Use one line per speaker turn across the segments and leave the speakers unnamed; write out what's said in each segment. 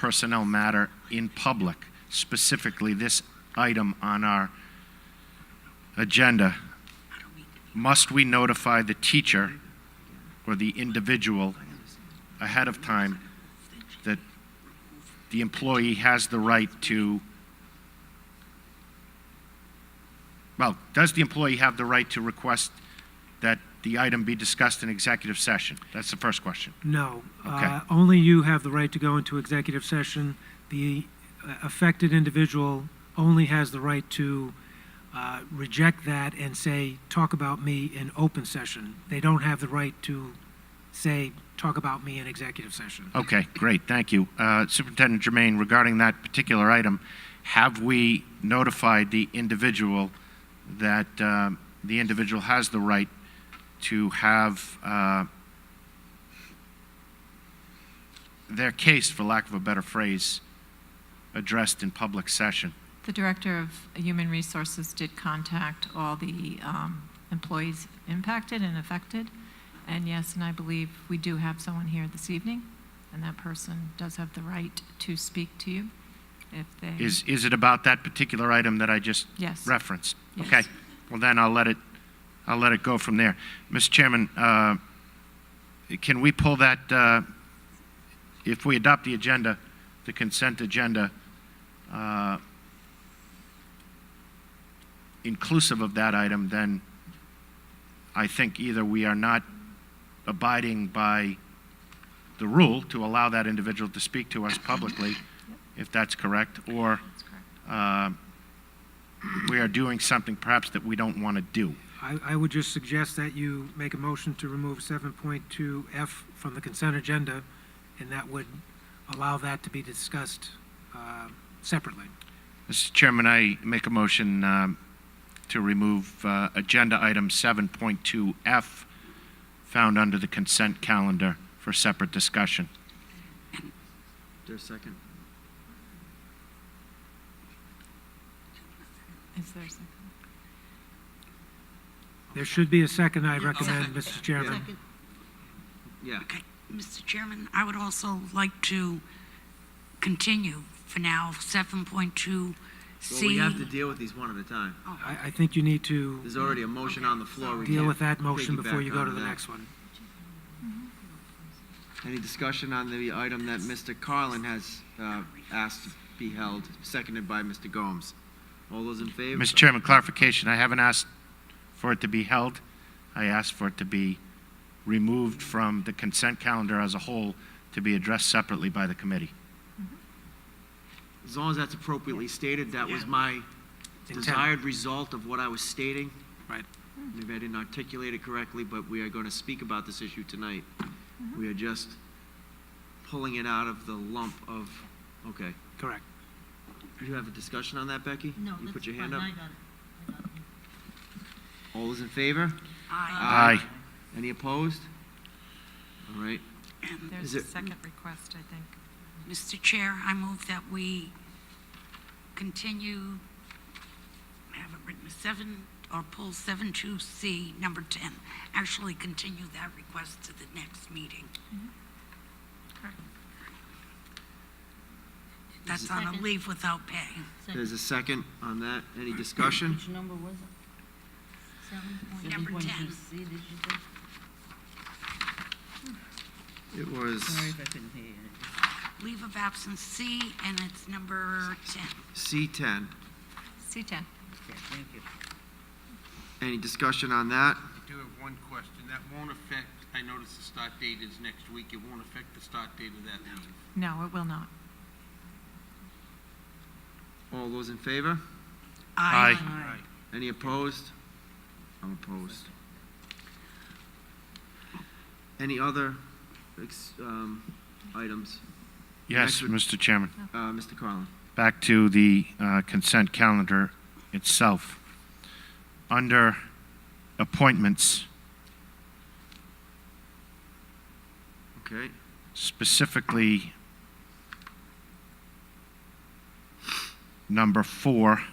personnel matter in public, specifically this item on our agenda, must we notify the teacher or the individual ahead of time that the employee has the right to, well, does the employee have the right to request that the item be discussed in executive session? That's the first question.
No.
Okay.
Uh, Only you have the right to go into executive session. The uh, affected individual only has the right to uh, reject that and say, "Talk about me in open session." They don't have the right to say, "Talk about me in executive session."
Okay, great, thank you. Uh, Superintendent Germain, regarding that particular item, have we notified the individual that um, the individual has the right to have uh, their case, for lack of a better phrase, addressed in public session?
The Director of Human Resources did contact all the um, employees impacted and affected. And yes, and I believe we do have someone here this evening, and that person does have the right to speak to you if they.
Is, is it about that particular item that I just
Yes.
referenced?
Yes.
Okay, well then I'll let it, I'll let it go from there. Mr. Chairman, uh, can we pull that, uh, if we adopt the agenda, the consent agenda, uh, inclusive of that item, then I think either we are not abiding by the rule to allow that individual to speak to us publicly, if that's correct, or
That's correct.
um, we are doing something perhaps that we don't want to do.
I I would just suggest that you make a motion to remove 7.2F from the consent agenda, and that would allow that to be discussed uh, separately.
Mr. Chairman, I make a motion um, to remove uh, Agenda Item 7.2F, found under the consent calendar for separate discussion.
There's a second.
Is there a second?
There should be a second, I recommend,
Second.
Mr. Chairman.
Second.
Yeah.
Okay, Mr. Chairman, I would also like to continue for now, 7.2C.
Well, we have to deal with these one at a time.
I, I think you need to
There's already a motion on the floor. We
deal
can't
with that motion before
piggyback
you go to
on
the
that.
next one.
Any discussion on the item that Mr. Carlin has uh, asked to be held, seconded by Mr. Gomes? All those in favor?
Mr. Chairman, clarification, I haven't asked for it to be held. I asked for it to be removed from the consent calendar as a whole to be addressed separately by the committee.
As long as that's appropriately stated, that was my desired result of what I was stating.
Right.
Maybe I didn't articulate it correctly, but we are going to speak about this issue tonight. We are just pulling it out of the lump of, okay.
Correct.
You have a discussion on that, Becky?
No,
You
that's
put your
fine,
hand up?
I got it.
All those in favor?
Aye.
Aye.
Any opposed? All right,
There's
Is
a
it-
second request, I think.
Mr. Chair, I move that we continue, I have it written, 7, or pull 72C, number 10. Actually, continue that request to the next meeting.
Mm-hmm.
That's on a
Second.
leave without pay.
there's a second
Second.
on that. Any discussion?
Which number was it? Seven point-
Number 10.
7.2C, did you say?
It was
Sorry if I couldn't hear you.
Leave of absence C, and it's number 10.
C10.
C10.
Okay, thank you.
Any discussion on that?
I do have one question. That won't affect, I noticed the start date is next week. It won't affect the start date of that meeting.
No, it will not.
All those in favor?
Aye.
Any opposed? I'm opposed. Any other ex- um, items?
Yes, Mr. Chairman.
Uh, Mr. Carlin?
back to the uh, consent calendar itself. Under appointments,
Okay,
specifically number four,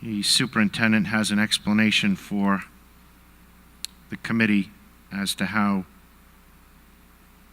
the superintendent has an explanation for the committee as to how